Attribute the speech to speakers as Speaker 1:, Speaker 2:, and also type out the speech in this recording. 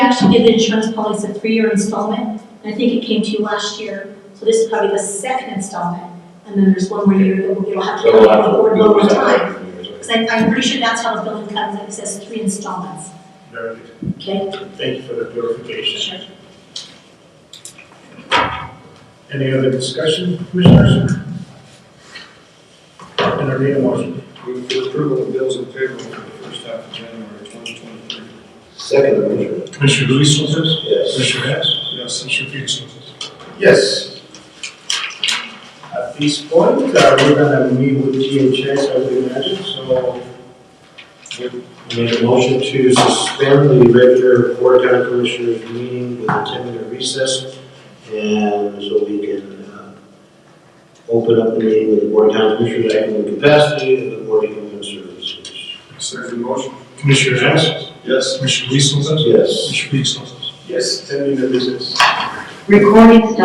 Speaker 1: actually did the insurance policy, it's a three-year installment, and I think it came to you last year. So this is probably the second installment, and then there's one more year that we'll, you'll have to
Speaker 2: So
Speaker 1: come
Speaker 2: we'll
Speaker 1: up
Speaker 2: have
Speaker 1: with
Speaker 2: to
Speaker 1: the board
Speaker 2: go
Speaker 1: one more
Speaker 2: with that
Speaker 1: time.
Speaker 2: right from here,
Speaker 1: Because I, I'm pretty sure that's how the billing comes, it says three installments,
Speaker 3: Very good.
Speaker 1: okay?
Speaker 3: Thank you for the clarification.
Speaker 1: Sure.
Speaker 3: Any other discussion, commissioners? Entertain a motion.
Speaker 4: Move for approval of bills and payroll for the first half of January twenty twenty-three.
Speaker 2: Second, Commissioner.
Speaker 3: Commissioner Luis Solzner?
Speaker 2: Yes.
Speaker 3: Commissioner Hess?
Speaker 4: Yes.
Speaker 3: Commissioner Felix Solzner?
Speaker 2: Yes.
Speaker 3: At this point, uh, we're gonna meet with DHS, I would imagine, so
Speaker 2: Make a motion to suspend the regular Board of County Commissioners meeting with a ten-minute recess, and so we can, uh, open up the meeting with the Board of County Commissioners acting in capacity of the Board of Human Services.
Speaker 4: Second motion.
Speaker 3: Commissioner Hess?
Speaker 4: Yes.
Speaker 3: Commissioner Luis Solzner?
Speaker 2: Yes.
Speaker 3: Commissioner Felix Solzner?
Speaker 4: Yes, ten minute recess.
Speaker 5: Recording